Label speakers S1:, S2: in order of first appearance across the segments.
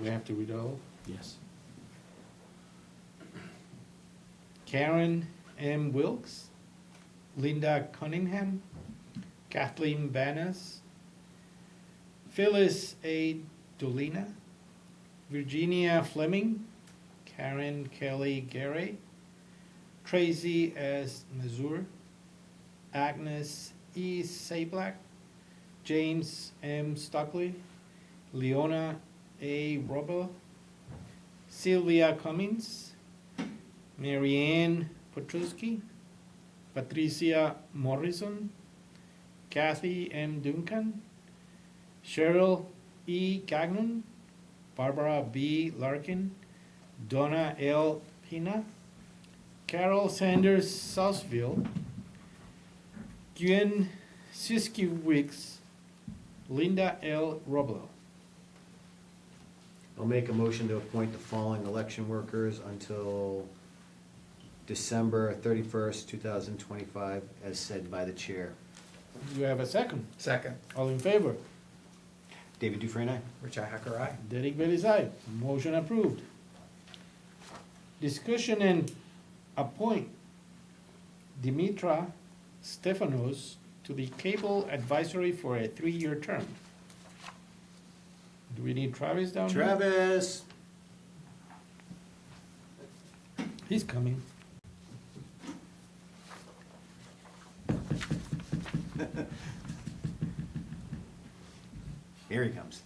S1: we have to read it all?
S2: Yes.
S1: Karen M. Wilkes, Linda Cunningham, Kathleen Banas, Phyllis A. Dolina, Virginia Fleming, Karen Kelly Gary, Tracy S. Mazur, Agnes E. Sablack, James M. Stockley, Leona A. Robel, Sylvia Cummings, Marianne Petruski, Patricia Morrison, Kathy M. Duncan, Cheryl E. Gagnon, Barbara B. Larkin, Donna L. Pina, Carol Sanders Southville, Gwen Siskiewicz, Linda L. Roblo.
S3: I'll make a motion to appoint the following election workers until December thirty-first, two thousand twenty-five, as said by the chair.
S1: Do you have a second?
S4: Second,
S1: All in favor?
S3: David Dufresne, aye?
S4: Richi Hacker, aye.
S1: Derek Bailey's aye. Motion approved. Discussion and appoint Dimitra Stefanos to the Cable Advisory for a three-year term. Do we need Travis down here?
S3: Travis,
S1: He's coming.
S3: here he comes.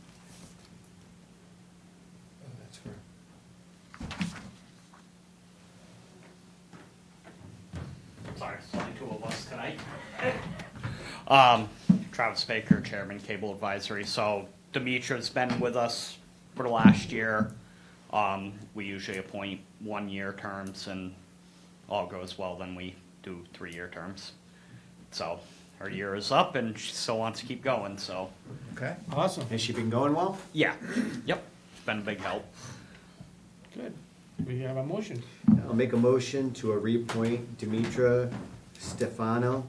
S4: Oh, that's her.
S5: Sorry, it's only two of us tonight. Um, Travis Baker, Chairman, Cable Advisory. So Demetra's been with us for the last year. Um, we usually appoint one-year terms and all goes well, then we do three-year terms. So her year is up and she still wants to keep going, so,
S4: Okay,
S1: Awesome,
S3: Has she been going well?
S5: yeah, yep, it's been a big help.
S1: good. We have a motion.
S3: I'll make a motion to reappoint Demetra Stefano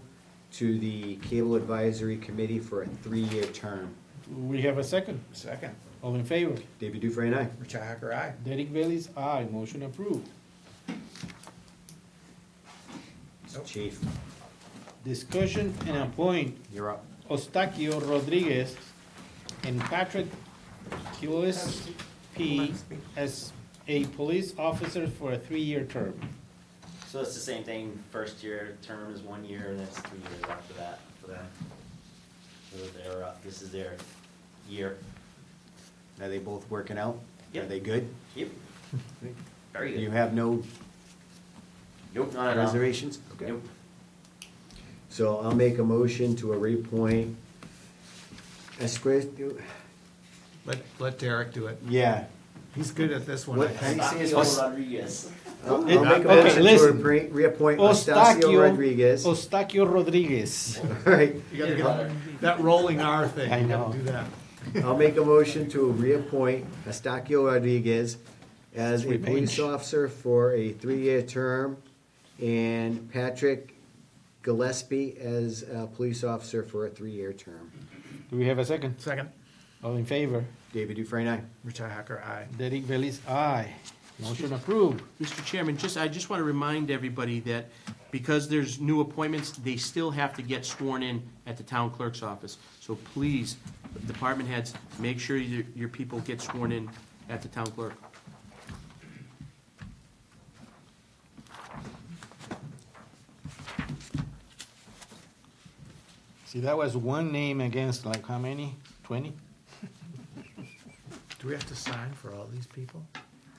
S3: to the Cable Advisory Committee for a three-year term.
S1: We have a second.
S4: second,
S1: All in favor?
S3: David Dufresne, aye?
S4: Richi Hacker, aye.
S1: Derek Bailey's aye. Motion approved.
S4: Nope.
S3: Chief,
S1: Discussion and appoint
S3: you're up.
S1: Ostaquio Rodriguez and Patrick Kilis P. as a police officer for a three-year term.
S6: So it's the same thing, first year term is one year, and it's three years after that for them. So they're, uh, this is their year.
S3: Are they both working out? Are
S6: Yep.
S3: they good?
S6: Yep, very
S3: You
S6: good.
S3: have no
S6: Nope, not at all.
S3: reservations? Okay.
S6: Nope.
S3: So I'll make a motion to reappoint Esque,
S4: Let, let Derek do it.
S3: yeah.
S4: He's good at this one, I
S3: What-
S4: think.
S3: how do you say
S6: Ocasio
S3: his first-
S6: Rodriguez.
S3: I'll
S1: It-
S3: I'll make a
S1: okay,
S3: motion to
S1: listen.
S3: re- reappoint
S1: Ostaquio-
S3: Estacio Rodriguez. All
S1: Ostaquio Rodriguez.
S3: right,
S4: You gotta
S6: Yeah, brother.
S4: get that rolling R thing,
S1: I
S4: you
S1: know.
S4: gotta do that.
S3: I'll make a motion to reappoint Estacio Rodriguez as a
S1: Sweet
S3: police
S1: mange.
S3: officer for a three-year term and Patrick Gillespie as a police officer for a three-year term.
S1: Do we have a second?
S4: Second,
S1: All in favor?
S3: David Dufresne, aye?
S4: Richi Hacker, aye.
S1: Derek Bailey's aye. Motion approved.
S7: Mr. Chairman, just, I just want to remind everybody that because there's new appointments, they still have to get sworn in at the town clerk's office. So please, department heads, make sure your, your people get sworn in at the town clerk.
S1: See, that was one name against like how many? Twenty?
S4: Do we have to sign for all these people?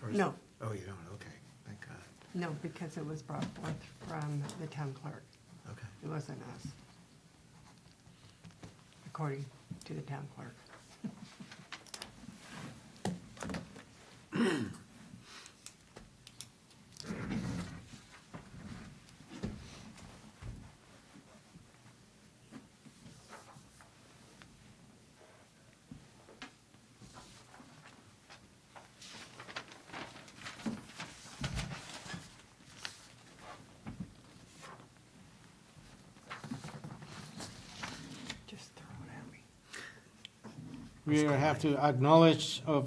S4: Or is-
S8: No.
S4: Oh, you don't, okay, thank God,
S8: No, because it was brought forth from the town clerk.
S4: okay.
S8: It wasn't us. According to the town clerk. Just throw it at me.
S1: We have to acknowledge of